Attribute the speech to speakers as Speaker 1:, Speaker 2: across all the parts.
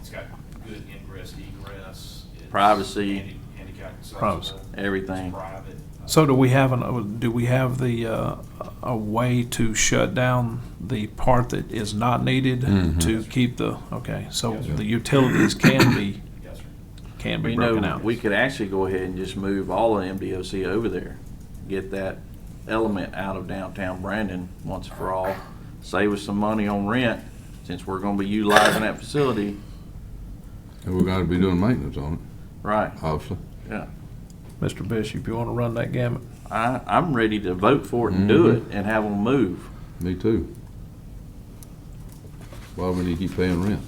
Speaker 1: It's got good ingress, egress. It's
Speaker 2: Privacy.
Speaker 1: handi- Handicap accessible.
Speaker 3: Privacy.
Speaker 2: Everything.
Speaker 1: It's private. Uh,
Speaker 3: So do we have an, do we have the, uh, a way to shut down the part that is not needed to keep the, okay, so
Speaker 1: Yes, sir.
Speaker 3: the utilities can be,
Speaker 1: Yes, sir.
Speaker 3: can be
Speaker 2: You
Speaker 3: broken
Speaker 2: know,
Speaker 3: out?
Speaker 2: we could actually go ahead and just move all of MDOC over there, get that element out of downtown Brandon once for all, save us some money on rent, since we're gonna be utilizing that facility.
Speaker 4: And we're gonna be doing maintenance on it,
Speaker 2: Right,
Speaker 4: obviously.
Speaker 2: yeah.
Speaker 3: Mr. Bishop, you wanna run that gamut?
Speaker 2: I, I'm ready to vote for it and do
Speaker 4: Mm-hmm.
Speaker 2: it and have them move.
Speaker 4: Me too. Why we need to keep paying rent?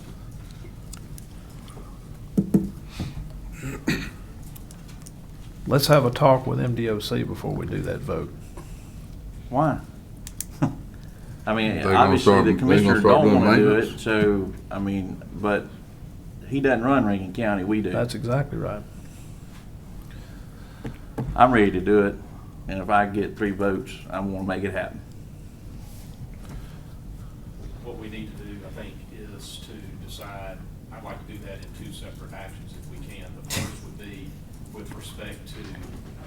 Speaker 3: Let's have a talk with MDOC before we do that vote.
Speaker 2: Why? I mean,
Speaker 4: They gonna start-
Speaker 2: obviously
Speaker 4: they
Speaker 2: the
Speaker 4: gonna
Speaker 2: commissioner
Speaker 4: start
Speaker 2: don't
Speaker 4: doing
Speaker 2: wanna do it,
Speaker 4: maintenance?
Speaker 2: so, I mean, but he doesn't run Rankin County, we do.
Speaker 3: That's exactly right.
Speaker 2: I'm ready to do it, and if I get three votes, I'm gonna make it happen.
Speaker 1: What we need to do, I think, is to decide, I'd like to do that in two separate actions if we can. The first would be with respect to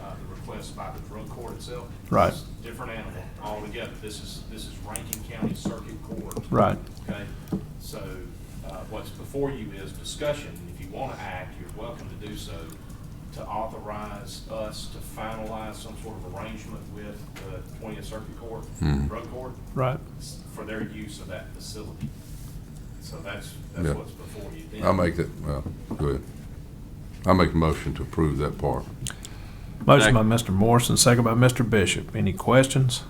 Speaker 1: uh, the request by the drug court itself.
Speaker 3: Right.
Speaker 1: It's a Different animal altogether. This is, this is Rankin County Circuit Court.
Speaker 3: Right.
Speaker 1: Okay, so uh, what's before you is discussion. If you want to act, you're welcome to do so, to authorize us to finalize some sort of arrangement with the Twentieth Circuit Court,
Speaker 4: Hmm.
Speaker 1: Drug Court,
Speaker 3: Right.
Speaker 1: s- for their use of that facility. So that's, that's
Speaker 4: Yeah.
Speaker 1: what's before you. Then-
Speaker 4: I make that, well, go ahead. I make a motion to approve that part.
Speaker 3: Motion by Mr. Morrison, second by Mr. Bishop. Any questions?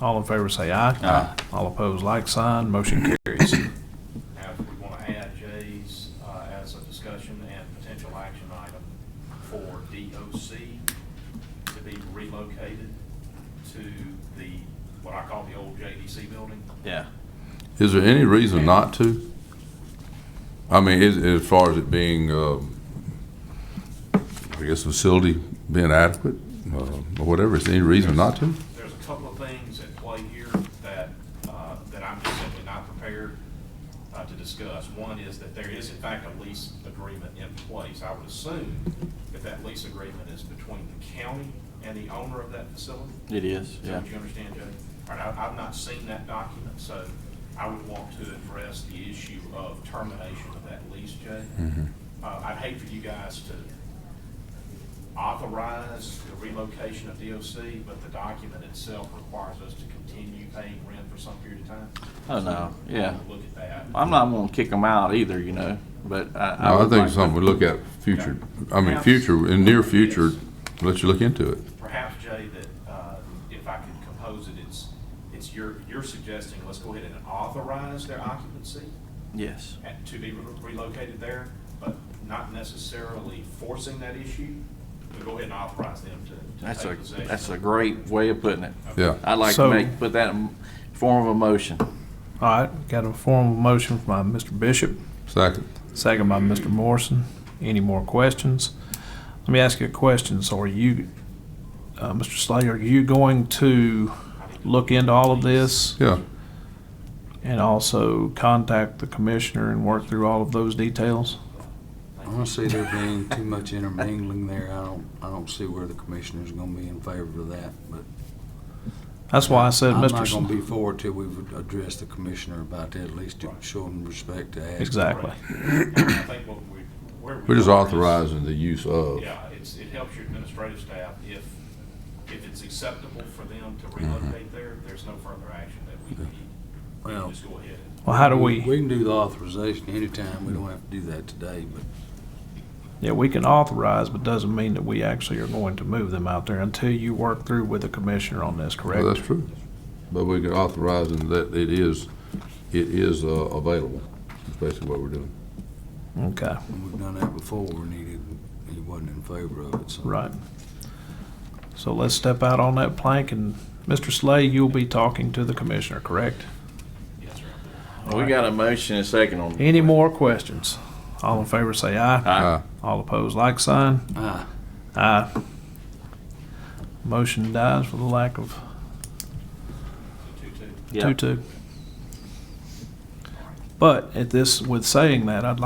Speaker 3: All in favor say aye. Aye. All opposed, like sign. Motion carries.
Speaker 1: Now, if we want to add J's uh, as a discussion and potential action item for DOC to be relocated to the, what I call the old JDC building.
Speaker 2: Yeah.
Speaker 4: Is there any reason not to? I mean, is, as far as it being, um, I guess facility being adequate, uh, or whatever, is there any reason not to?
Speaker 1: There's a couple of things at play here that, uh, that I'm just simply not prepared uh, to discuss. One is that there is in fact a lease agreement in place. I would assume that that lease agreement is between the county and the owner of that facility.
Speaker 2: It is,
Speaker 1: Is
Speaker 2: yeah.
Speaker 1: that what you understand, Jay? All right, I- I've not seen that document, so I would want to address the issue of termination of that lease, Jay.
Speaker 2: Mm-hmm.
Speaker 1: Uh, I'd hate for you guys to authorize the relocation of DOC, but the document itself requires us to continue paying rent for some period of time.
Speaker 2: Oh, no, yeah.
Speaker 1: Look at that.
Speaker 2: I'm not gonna kick them out either, you know, but I.
Speaker 4: No, I
Speaker 2: would
Speaker 4: think
Speaker 2: like
Speaker 4: it's
Speaker 2: to-
Speaker 4: something we look at future, I mean, future, in near future, let you look into it.
Speaker 1: Perhaps, Jay, that uh, if I could compose it, it's, it's your, you're suggesting, let's go ahead and authorize their occupancy?
Speaker 2: Yes,
Speaker 1: at- to be re- relocated there, but not necessarily forcing that issue, but go ahead and authorize them to, to
Speaker 2: that's a,
Speaker 1: take possession.
Speaker 2: that's a great way of putting it.
Speaker 4: Yeah.
Speaker 2: I'd like to
Speaker 3: So-
Speaker 2: make, put that in form of a motion.
Speaker 3: All right, got a formal motion by Mr. Bishop,
Speaker 4: Second.
Speaker 3: second by Mr. Morrison. Any more questions? Let me ask you a question. So are you, uh, Mr. Slay, are you going to look into all of this?
Speaker 4: Yeah,
Speaker 3: And also contact the commissioner and work through all of those details?
Speaker 5: Honestly, there being too much intermingling there, I don't, I don't see where the commissioner's gonna be in favor of that, but.
Speaker 3: That's why I said,
Speaker 5: I'm
Speaker 3: Mr.
Speaker 5: not gonna
Speaker 3: Slay.
Speaker 5: be for it till we've addressed the commissioner about that, at least to show him respect to ask.
Speaker 3: Exactly.
Speaker 1: And I think what we, where we.
Speaker 4: we're just
Speaker 1: are is-
Speaker 4: authorizing the use of.
Speaker 1: Yeah, it's, it helps your administrative staff if, if it's acceptable for them to relocate there, there's no further action that we need. We can
Speaker 5: Well-
Speaker 1: Just go ahead and.
Speaker 3: Well, how do
Speaker 5: We can do the authorization anytime, we don't have to do that today, but
Speaker 3: Yeah, we can authorize, but doesn't mean that we actually are going to move them out there until you work through with the commissioner on this,
Speaker 4: Well, that's
Speaker 3: correct?
Speaker 4: true. But we can authorize them that it is, it is uh, available, That's basically what we're doing.
Speaker 3: Okay,
Speaker 5: we've done that before, and he didn't, he wasn't in favor of it, so.
Speaker 3: right. So let's step out on that plank and, Mr. Slay, you'll be talking to the commissioner, correct?
Speaker 1: Yes, sir.
Speaker 2: We got a motion and a second on.
Speaker 3: Any more questions? All in favor say aye.
Speaker 2: Aye.
Speaker 4: Uh,
Speaker 3: All opposed, like sign.
Speaker 5: Ah,
Speaker 3: Aye. Motion dies for the lack of
Speaker 1: Two-two.
Speaker 2: Yeah.
Speaker 3: two-two. But at this, with saying that, I'd like